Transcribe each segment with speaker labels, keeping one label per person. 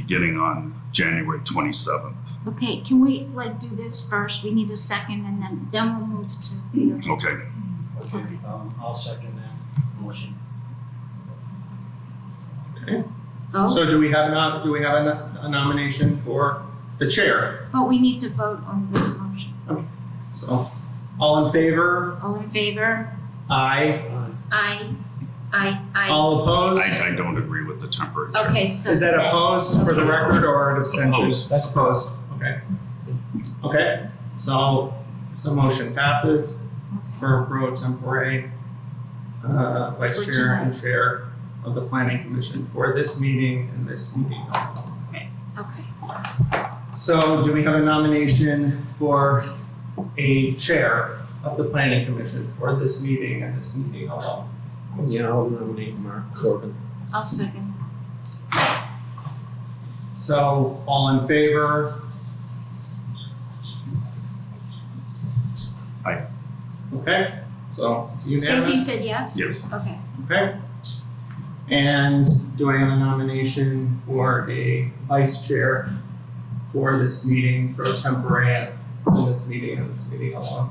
Speaker 1: getting on January 27th.
Speaker 2: Okay, can we like do this first? We need a second and then, then we'll move to the other.
Speaker 1: Okay,
Speaker 3: Okay, um, I'll second that motion.
Speaker 2: Oh,
Speaker 4: So do we have not, do we have a no- a nomination for the chair?
Speaker 2: but we need to vote on this motion.
Speaker 4: So, all in favor?
Speaker 2: All in favor?
Speaker 4: Aye.
Speaker 3: Aye.
Speaker 2: Aye, aye, aye.
Speaker 4: All opposed?
Speaker 1: I, I don't agree with the temporary. chair.
Speaker 2: Okay, so.
Speaker 4: Is that opposed for the record or an abstention?
Speaker 1: Opposed.
Speaker 4: That's opposed. Okay. Okay, so, so motion passes
Speaker 2: Okay.
Speaker 4: for pro tempore, uh, vice
Speaker 2: For
Speaker 4: chair and chair of the planning commission for this meeting and this meeting only.
Speaker 2: Okay,
Speaker 4: So do we have a nomination for a chair of the planning commission for this meeting and this meeting alone?
Speaker 5: Yeah, I'll nominate Mark Corbin.
Speaker 2: I'll second.
Speaker 4: So all in favor?
Speaker 1: Aye.
Speaker 4: Okay, so it's
Speaker 2: Stacy, you
Speaker 4: unanimous,
Speaker 2: said yes?
Speaker 1: Yes.
Speaker 2: Okay,
Speaker 4: okay? And do I have a nomination for a vice chair for this meeting pro tempore and this meeting and this meeting alone?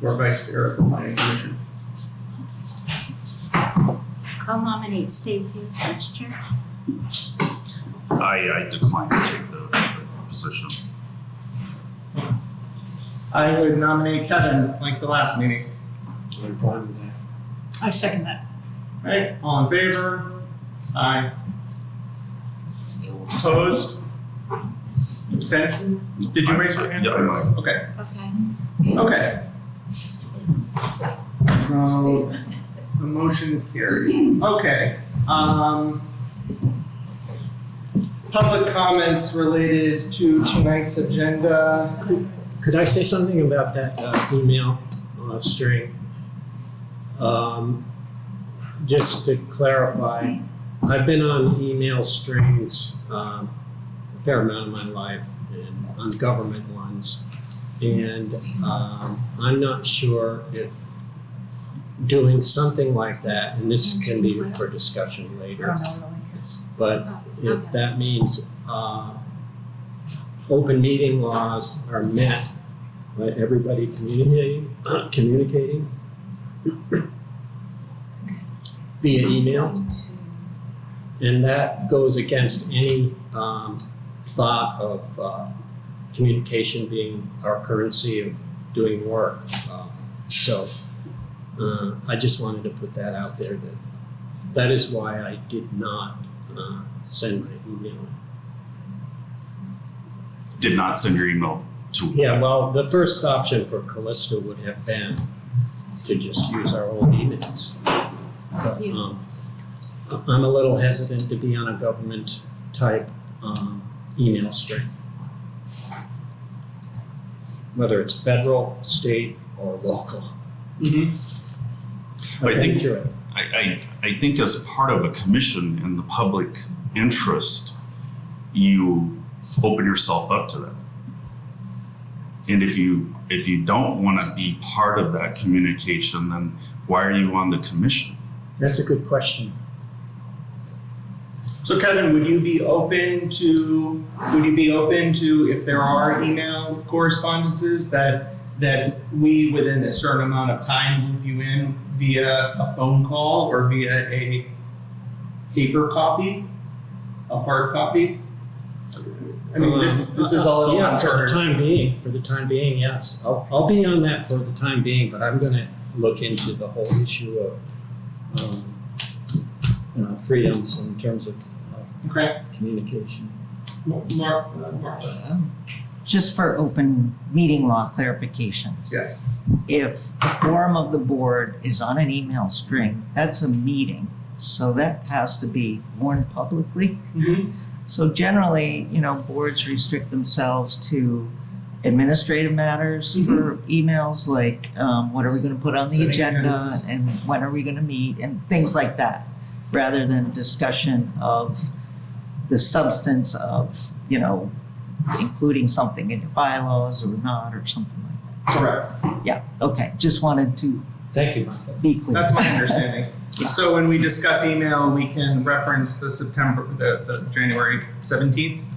Speaker 4: For vice chair of the planning commission?
Speaker 2: I'll nominate Stacy as vice chair.
Speaker 1: I, I decline to take the, the position.
Speaker 4: I would nominate Kevin, like the last meeting.
Speaker 5: I'm fine with that.
Speaker 6: I second that.
Speaker 4: Right, all in favor? Aye. Opposed? Abstention? Did you raise your hand?
Speaker 1: Yeah, I might.
Speaker 4: Okay,
Speaker 2: Okay.
Speaker 4: okay. So, the motion is carried. Okay, um. Public comments related to tonight's agenda.
Speaker 5: Could I say something about that uh, email uh, string? Um, just to clarify, I've been on email strings um, a fair amount of my life and on government ones. And um, I'm not sure if doing something like that, and this can be for discussion
Speaker 6: I
Speaker 5: later,
Speaker 6: don't know what it is.
Speaker 4: Uh,
Speaker 5: but
Speaker 2: Oh,
Speaker 5: if
Speaker 2: okay.
Speaker 5: that means uh, open meeting laws are met by everybody communicating, communicating via email, and that goes against any um, thought of uh, communication being our currency of doing work. Uh, So uh, I just wanted to put that out there that that is why I did not uh, send my email.
Speaker 1: Did not send your email to.
Speaker 5: Yeah, well, the first option for Callista would have been to just use our old emails. But,
Speaker 2: Yeah.
Speaker 5: um, I'm a little hesitant to be on a government type, um, email string. Whether it's federal, state, or local.
Speaker 4: Mm-hmm.
Speaker 1: I
Speaker 5: I've been
Speaker 1: think-
Speaker 5: through it.
Speaker 1: I, I, I think as part of a commission in the public interest, you open yourself up to that. And if you, if you don't want to be part of that communication, then why are you on the commission?
Speaker 5: That's a good question.
Speaker 4: So Kevin, would you be open to, would you be open to if there are email correspondences that, that we within a certain amount of time loop you in via a phone call or via a paper copy, a hard copy? I mean, this, this is a little
Speaker 5: Uh, Yeah, for the
Speaker 4: uncharted.
Speaker 5: time being, for the time being, yes. I'll, I'll be on that for the time being, but I'm gonna look into the whole issue of, um, you know, freedoms in terms of uh,
Speaker 4: Okay,
Speaker 5: communication.
Speaker 4: Mark, uh, Martha,
Speaker 7: Just for open meeting law clarification,
Speaker 4: yes.
Speaker 7: if the quorum of the board is on an email string, that's a meeting. So that has to be warned publicly.
Speaker 4: Mhm.
Speaker 7: So generally, you know, boards restrict themselves to administrative matters for emails, like, um, what are we gonna put on the
Speaker 4: Setting
Speaker 7: agenda?
Speaker 4: agendas.
Speaker 7: And when are we gonna meet and things like that, rather than discussion of the substance of, you know, including something in your bylaws or not, or something like that.
Speaker 4: Correct,
Speaker 7: Yeah, okay, just wanted to
Speaker 5: Thank you, Martha.
Speaker 7: be clear.
Speaker 4: that's my understanding.
Speaker 7: Yeah.
Speaker 4: So when we discuss email, we can reference the September, the, the January seventeenth?